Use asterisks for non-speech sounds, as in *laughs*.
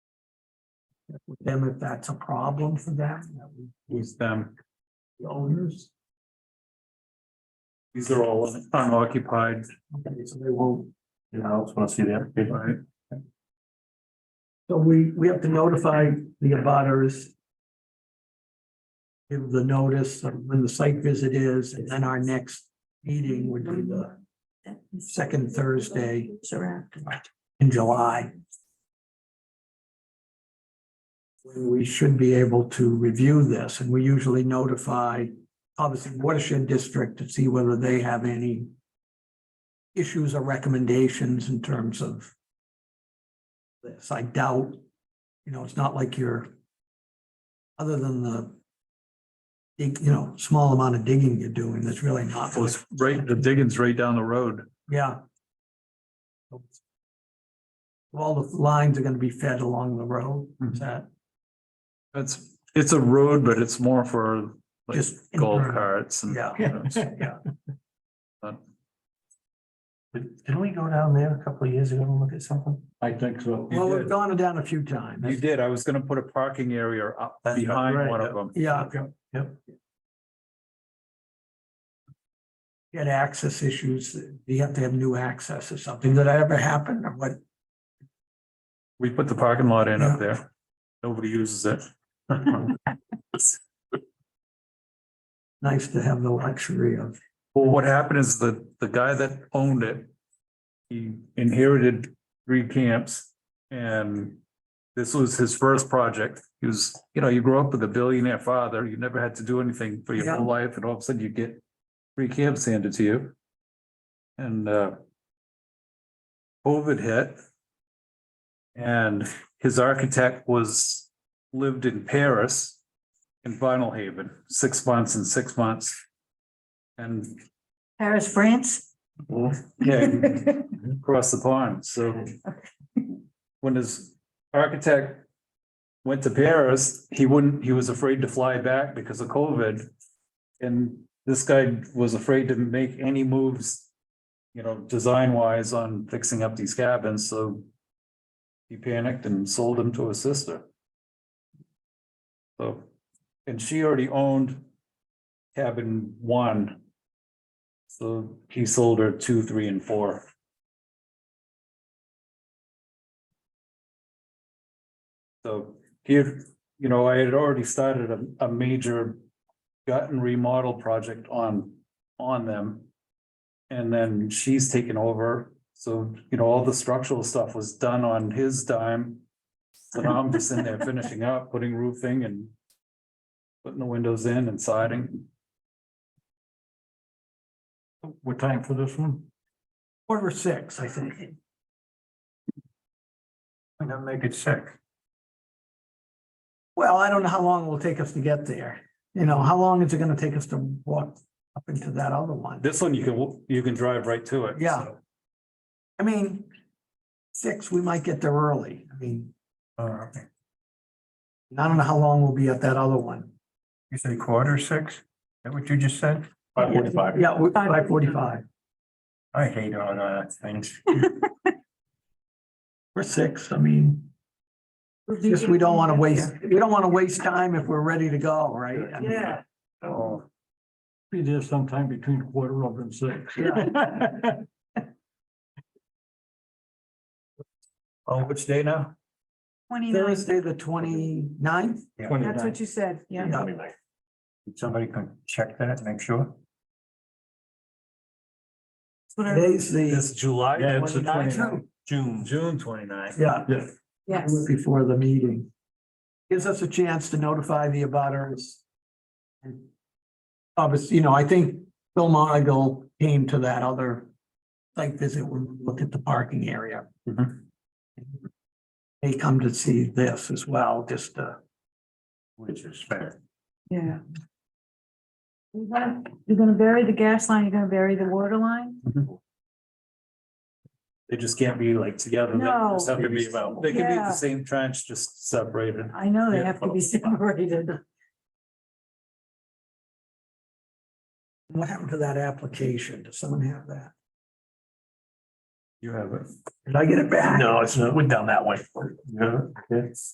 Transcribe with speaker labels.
Speaker 1: with them if that's a problem for them, that we,
Speaker 2: Who's them?
Speaker 1: the owners.
Speaker 2: These are all unoccupied,
Speaker 1: Okay, so they won't,
Speaker 3: Yeah, I also want to see the application.
Speaker 2: right?
Speaker 1: so we, we have to notify the abutters. Give the notice of when the site visit is, and then our next meeting would be the, Second Thursday. in July. When we should be able to review this, and we usually notify, obviously watershed district to see whether they have any. Issues or recommendations in terms of. This, I doubt, you know, it's not like you're. Other than the. dig- You know, small amount of digging you're doing, that's really not.
Speaker 2: Well, it's right, the digging's right down the road.
Speaker 1: Yeah. All the lines are gonna be fed along the road,
Speaker 2: Mm-hmm.
Speaker 1: is that
Speaker 2: It's, it's a road, but it's more for like
Speaker 1: just?
Speaker 2: golf carts and. *laughs*
Speaker 1: Yeah. Yeah,
Speaker 3: Did- Didn't we go down there a couple of years ago and look at something? I think so.
Speaker 1: well,
Speaker 2: You
Speaker 1: we've
Speaker 2: did.
Speaker 1: gone down a few times.
Speaker 2: You did, I was gonna put a parking area up
Speaker 3: That's
Speaker 2: behind
Speaker 3: right,
Speaker 2: one of
Speaker 3: yeah.
Speaker 2: them.
Speaker 1: Yeah,
Speaker 3: Yep.
Speaker 1: you had access issues, you have to have new access or something. Did that ever happen or what?
Speaker 2: We put the parking lot in up there. Nobody uses it. *laughs* Well,
Speaker 1: Nice to have the luxury of,
Speaker 2: what happened is the, the guy that owned it, he inherited three camps and this was his first project. He was, you know, you grow up with a billionaire father, you never had to do anything for your whole life and all of a sudden you get three camps handed to you. And, uh, COVID hit. And his architect was, lived in Paris in Vinyl Haven, six months and six months. And,
Speaker 4: Paris, France?
Speaker 2: yeah, across the pond, so. When his architect went to Paris, he wouldn't, he was afraid to fly back because of COVID. And this guy was afraid to make any moves, you know, design wise on fixing up these cabins, so. He panicked and sold them to his sister. So, and she already owned cabin one. So he sold her two, three, and four. So here, you know, I had already started a, a major gut and remodel project on, on them. And then she's taken over, so, you know, all the structural stuff was done on his dime. So now I'm just in there finishing up, putting roofing and putting the windows in and siding.
Speaker 3: What time for this one?
Speaker 1: quarter six, I think.
Speaker 3: I'm gonna make it sick.
Speaker 1: Well, I don't know how long it will take us to get there. You know, how long is it gonna take us to walk up into that other one?
Speaker 2: This one you can, you can drive right to it.
Speaker 1: Yeah.
Speaker 2: so.
Speaker 1: I mean, six, we might get there early. I mean,
Speaker 3: Uh,
Speaker 1: I don't know how long we'll be at that other one.
Speaker 3: you say quarter six? Is that what you just said?
Speaker 2: Five forty-five.
Speaker 1: Yeah, five forty-five.
Speaker 3: I hate all that things.
Speaker 1: We're six, I mean, just we don't wanna waste, we don't wanna waste time if we're ready to go, right? I mean,
Speaker 4: Yeah.
Speaker 2: Oh,
Speaker 3: Be there sometime between quarter of and six. *laughs*
Speaker 2: oh, which day now?
Speaker 4: Twenty-nine,
Speaker 1: Thursday, the 29th.
Speaker 4: that's what you said, yeah.
Speaker 3: Did Somebody can check that and make sure.
Speaker 4: That's what I-
Speaker 1: today's the,
Speaker 2: It's July
Speaker 3: Yeah, it's the
Speaker 2: 29th.
Speaker 3: 29th. June.
Speaker 2: June twenty-ninth.
Speaker 1: yeah,
Speaker 4: Yes,
Speaker 1: before the meeting. Gives us a chance to notify the abutters. And Obviously, you know, I think Bill Monagle came to that other site visit when we looked at the parking area.
Speaker 2: Mhm.
Speaker 1: They come to see this as well, just to.
Speaker 3: Which is fair.
Speaker 4: yeah. You're gonna- you're gonna bury the gas line, you're gonna bury the water line?
Speaker 2: They just can't be like together. They
Speaker 4: No.
Speaker 2: just have to be about- They can be at
Speaker 4: Yeah.
Speaker 2: the same trench, just separated.
Speaker 4: I know they
Speaker 2: Yeah.
Speaker 4: have to be *laughs* separated.
Speaker 1: What happened to that application? Does someone have that?
Speaker 2: You have it.
Speaker 1: Did I get it back?
Speaker 3: No, it's not, went down that way. Yeah, yes.